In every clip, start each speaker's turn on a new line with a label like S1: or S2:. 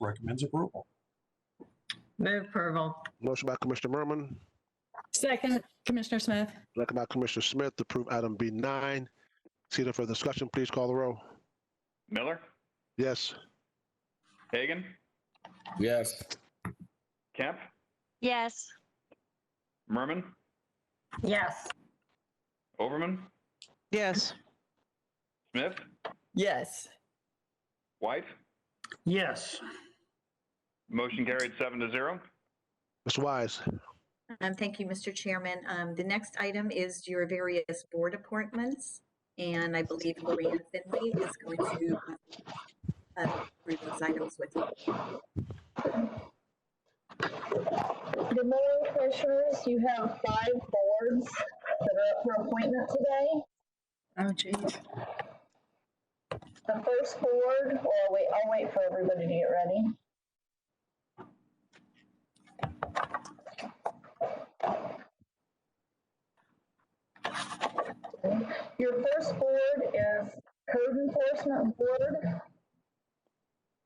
S1: recommends approval.
S2: Move approval.
S3: Motion by Commissioner Merman,
S4: Second, Commissioner Smith.
S3: second by Commissioner Smith to approve item B9. See no further discussion, please call the roll.
S5: Miller,
S3: Yes.
S5: Hagan,
S6: yes,
S5: Kemp,
S7: yes,
S5: Merman,
S2: Yes.
S5: Overman,
S8: yes,
S5: Smith,
S2: Yes.
S5: White.
S9: yes,
S5: Motion carried seven to zero.
S3: Ms. Wise,
S10: Um, Thank you, Mr. Chairman. Um, The next item is your various board appointments. And I believe Lorianne Finley is going to uh, read those items with you.
S11: Good morning, Commissioners. You have five boards that are up for appointment today.
S4: Oh, geez.
S11: The first board, or wait, I'll wait for everybody to get ready. Your first board is Code Enforcement Board.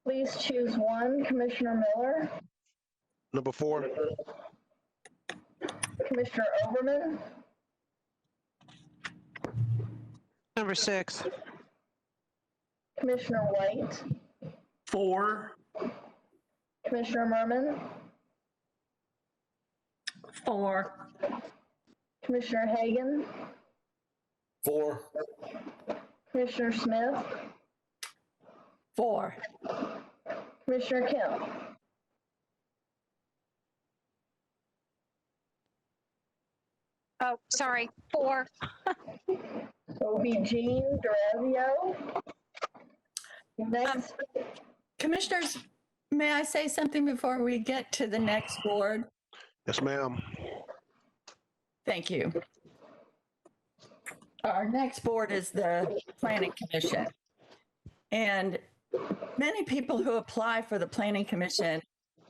S11: Please choose one, Commissioner Miller,
S3: number four.
S11: Commissioner Overman,
S8: number six,
S11: Commissioner White,
S9: four,
S11: Commissioner Merman,
S2: Four.
S11: Commissioner Hagan,
S6: four,
S11: Commissioner Smith,
S2: Four.
S11: Commissioner Kemp.
S7: oh, sorry, four,
S11: It will be Jean Durazio. Next,
S4: Uh, Commissioners, may I say something before we get to the next board?
S3: Yes, ma'am.
S4: Thank you. Our next board is the Planning Commission. And many people who apply for the Planning Commission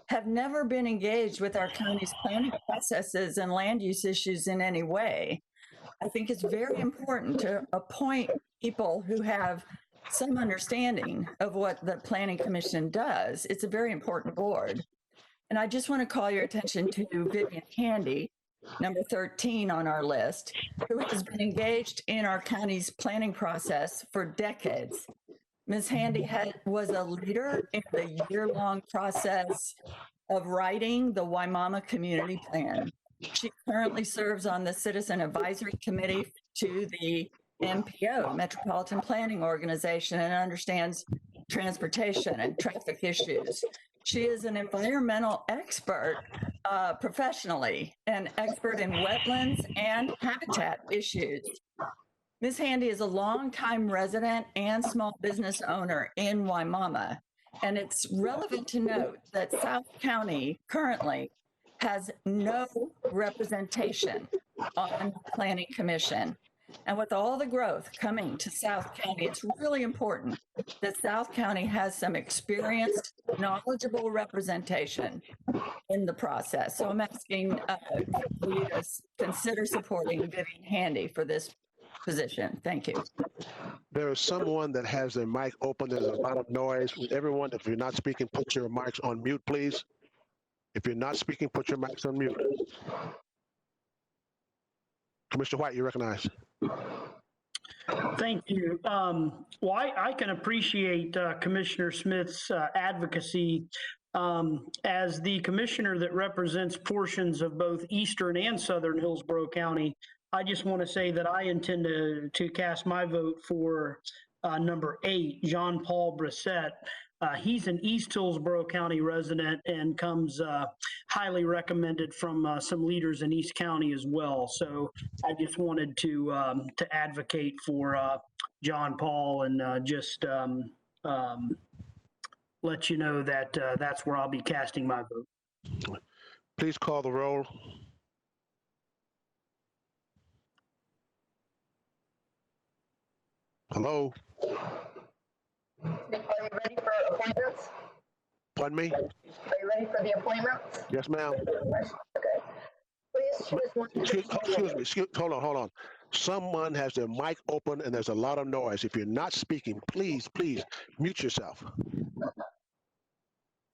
S4: have never been engaged with our county's planning processes and land use issues in any way. I think it's very important to appoint people who have some understanding of what the Planning Commission does. It's a very important board. And I just want to call your attention to Vivian Handy, number 13 on our list, who has been engaged in our county's planning process for decades. Ms. Handy had, was a leader in the year-long process of writing the Waimama Community Plan. She currently serves on the Citizen Advisory Committee to the MPO, Metropolitan Planning Organization, and understands transportation and traffic issues. She is an environmental expert uh, professionally, an expert in wetlands and habitat issues. Ms. Handy is a longtime resident and small business owner in Waimama. And it's relevant to note that South County currently has no representation on the Planning Commission. And with all the growth coming to South County, it's really important that South County has some experienced, knowledgeable representation in the process. So I'm asking uh, for you to s- consider supporting Vivian Handy for this position. Thank you.
S3: There is someone that has their mic open. There's a lot of noise. Everyone, if you're not speaking, put your mics on mute, please. If you're not speaking, put your mics on mute. Commissioner White, you recognize.
S9: thank you. Um, well, I, I can appreciate uh, Commissioner Smith's uh, advocacy um, as the commissioner that represents portions of both eastern and southern Hillsborough County. I just want to say that I intend to, to cast my vote for uh, number eight, John Paul Brissett. Uh, he's an East Hillsborough County resident and comes uh, highly recommended from uh, some leaders in East County as well. So I just wanted to um, to advocate for uh, John Paul and uh, just um, um, let you know that uh, that's where I'll be casting my vote.
S3: Please call the roll. Hello,
S11: are you ready for appointments?
S3: pardon me?
S11: Are you ready for the appointments?
S3: Yes, ma'am.
S11: Okay. Please choose one.
S3: Excuse excuse me, excuse, hold on, hold on. Someone has their mic open and there's a lot of noise. If you're not speaking, please, please mute yourself.